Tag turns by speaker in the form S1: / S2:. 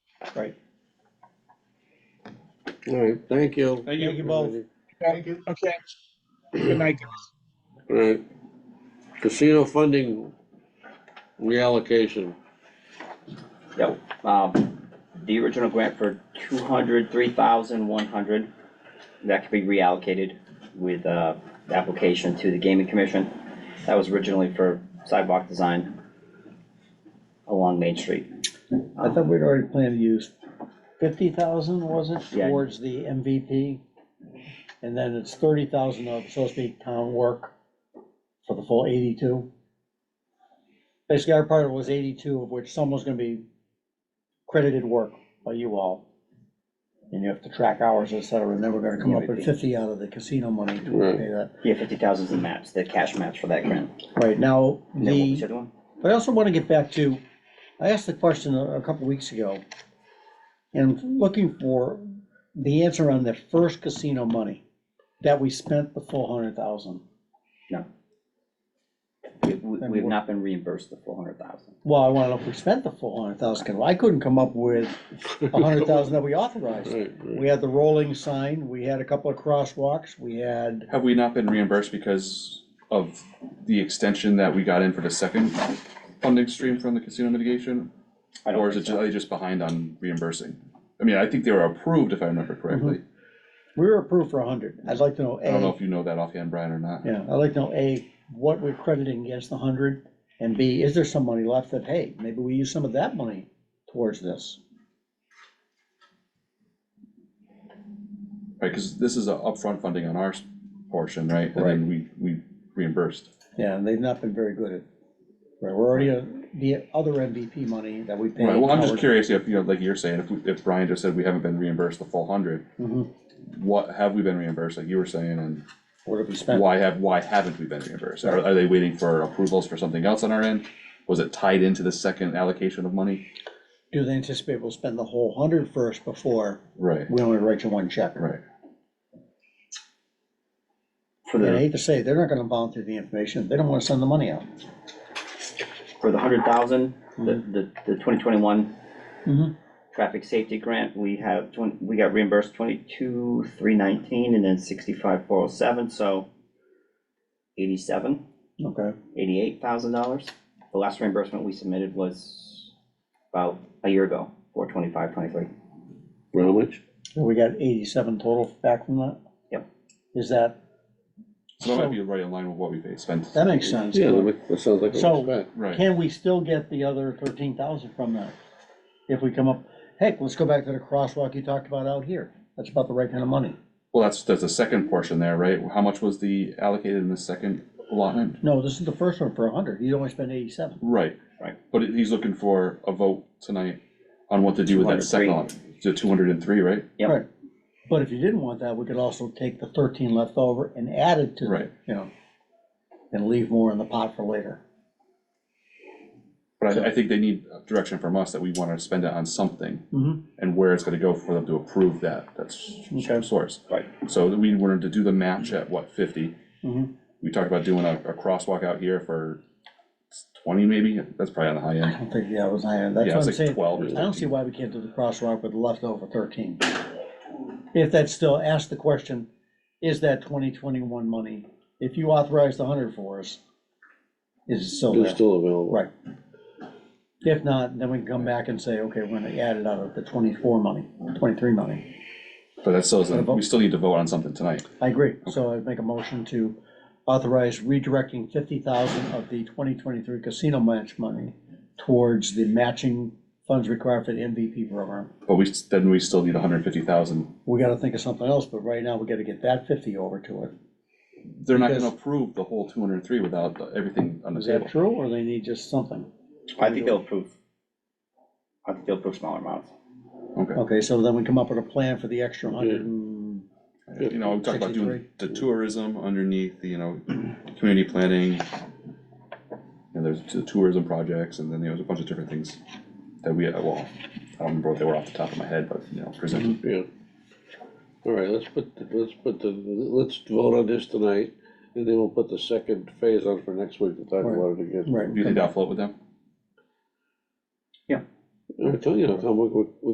S1: All right, thank you.
S2: Thank you. Thank you both.
S3: Thank
S4: you.
S3: Okay. Good night, guys.
S1: All right. Casino funding reallocation.
S5: Yep, um, the original grant for two hundred, three thousand, one hundred, that could be reallocated with, uh, the application to the gaming commission. That was originally for sidewalk design along Main Street. Um,
S4: I thought we'd already planned to use fifty thousand, was it,
S5: Yeah.
S4: towards the MVP? And then it's thirty thousand of supposed to be town work for the full eighty-two. Basically, our part was eighty-two, of which some was gonna be credited work by you all. And you have to track hours, et cetera, and then we're gonna come up with
S5: MVP.
S4: fifty out of the casino money to
S1: Right.
S4: pay that.
S5: Yeah, fifty thousand is the match, the cash match for that grant.
S4: Right, now,
S5: And then what was
S4: the.
S5: the other one?
S4: But I also want to get back to, I asked the question a a couple weeks ago, and I'm looking for the answer on the first casino money, that we spent the full hundred thousand.
S5: We- We, we have not been reimbursed the four hundred thousand.
S4: Well, I want to know if we spent the full hundred thousand, because I couldn't come up with a hundred thousand that we authorized.
S1: Right, right.
S4: We had the rolling sign, we had a couple of crosswalks, we had,
S6: Have we not been reimbursed because of the extension that we got in for the second funding stream from the casino mitigation?
S5: I don't
S6: Or is it,
S5: think
S6: ju-
S5: so.
S6: are they just behind on reimbursing? I mean, I think they were approved, if I remember correctly.
S4: we were approved for a hundred. I'd like to know,
S6: I don't know
S4: A,
S6: if you know that offhand, Brian, or not.
S4: yeah, I'd like to know, A, what we're crediting against the hundred, and B, is there some money left that, hey, maybe we use some of that money towards this?
S6: Right, because this is a upfront funding on our s- portion, right? And then we, we reimbursed.
S4: Yeah, and they've not been very good at, right, we're already, uh, the other MVP money that we paid.
S6: Right, well, I'm just curious if, you know, like you're saying, if, we- if Brian just said we haven't been reimbursed the full hundred,
S4: Mhm.
S6: what, have we been reimbursed, like you were saying, and
S4: What have we spent?
S6: why have, why haven't we been reimbursed? Are, are they waiting for approvals for something else on our end? Was it tied into the second allocation of money?
S4: Do they anticipate we'll spend the whole hundred first before
S6: Right,
S4: we only write you one check?
S6: right.
S5: For
S4: And I
S5: the,
S4: hate to say, it, they're not gonna volunteer the information, they don't wanna send the money out.
S5: for the hundred thousand,
S4: Mm-hmm.
S5: the, the, the twenty twenty-one
S6: Mm-hmm.
S4: Mhm.
S5: traffic safety grant, we have, twen- we got reimbursed twenty-two, three nineteen, and then sixty-five, four oh seven, so eighty-seven,
S4: Okay,
S5: eighty-eight thousand dollars. The last reimbursement we submitted was about a year ago, four twenty-five, twenty-three.
S1: How much?
S4: so we got eighty-seven total back from that?
S5: Yep.
S4: Is that,
S6: So that might be right in line with what we paid, spent.
S4: that makes sense.
S1: Yeah, that ma- that sounds like a
S4: So-
S1: respect.
S6: Right,
S4: Can we still get the other thirteen thousand from that? If we come up, heck, let's go back to the crosswalk you talked about out here, that's about the right kind of money.
S6: well, that's, that's the second portion there, right? How much was the allocated in the second allotment?
S4: No, this is the first one for a hundred, you only spent eighty-seven.
S6: Right.
S5: Right.
S6: But he's looking for a vote tonight on what to do with that
S5: 203.
S6: second allotment, the two hundred and three, right?
S5: Yep.
S4: Right. But if you didn't want that, we could also take the thirteen left over and add it to,
S6: Right.
S4: you know, and leave more in the pot for later.
S6: But I, I think they need direction from us that we wanna spend it on something
S4: Mhm.
S6: and where it's gonna go for them to approve that, that's
S4: Okay.
S6: source.
S5: Right.
S6: So we wanted to do the match at what, fifty?
S4: Mhm.
S6: We talked about doing a, a crosswalk out here for twenty maybe, that's probably on the high
S4: I
S6: end.
S4: don't think, yeah, it was, I, that's
S6: Yeah,
S4: what
S6: it's
S4: I'm
S6: like
S4: saying.
S6: twelve or
S4: I don't see
S6: something.
S4: why we can't do the crosswalk with the leftover thirteen. If that's still, ask the question, is that twenty twenty-one money, if you authorize the hundred for us, is it still
S1: It's
S4: there?
S1: still available.
S4: Right. If not, then we can come back and say, okay, we're gonna add it out of the twenty-four money, twenty-three money.
S6: But that still
S4: Wanna
S6: isn't,
S4: vote?
S6: we still need to vote on something tonight.
S4: I agree, so I'd make a motion to authorize redirecting fifty thousand of the twenty twenty-three casino match money towards the matching funds required for the MVP program.
S6: But we, s- then we still need hundred and fifty thousand.
S4: We gotta think of something else, but right now, we gotta get that fifty over to it.
S6: They're not gonna
S4: Because-
S6: approve the whole two hundred and three without the- everything on the
S4: Is
S6: table.
S4: that true, or they need just something?
S5: I think they'll approve. I think they'll approve smaller amounts.
S6: Okay.
S4: Okay, so then we come up with a plan for the extra hundred and,
S6: You know, we talked about doing
S4: 63.
S6: the tourism underneath, the, you know, community planning. And there's the tourism projects, and then there was a bunch of different things that we, well, I don't remember what they were off the top of my head, but, you know, presented.
S1: Yeah. All right, let's put, the- let's put the, let's vote on this tonight, and then we'll put the second phase on for next week to talk
S4: Right.
S1: about it again.
S4: right.
S6: Do you think that'll float with them?
S1: I tell you, Tom, we, we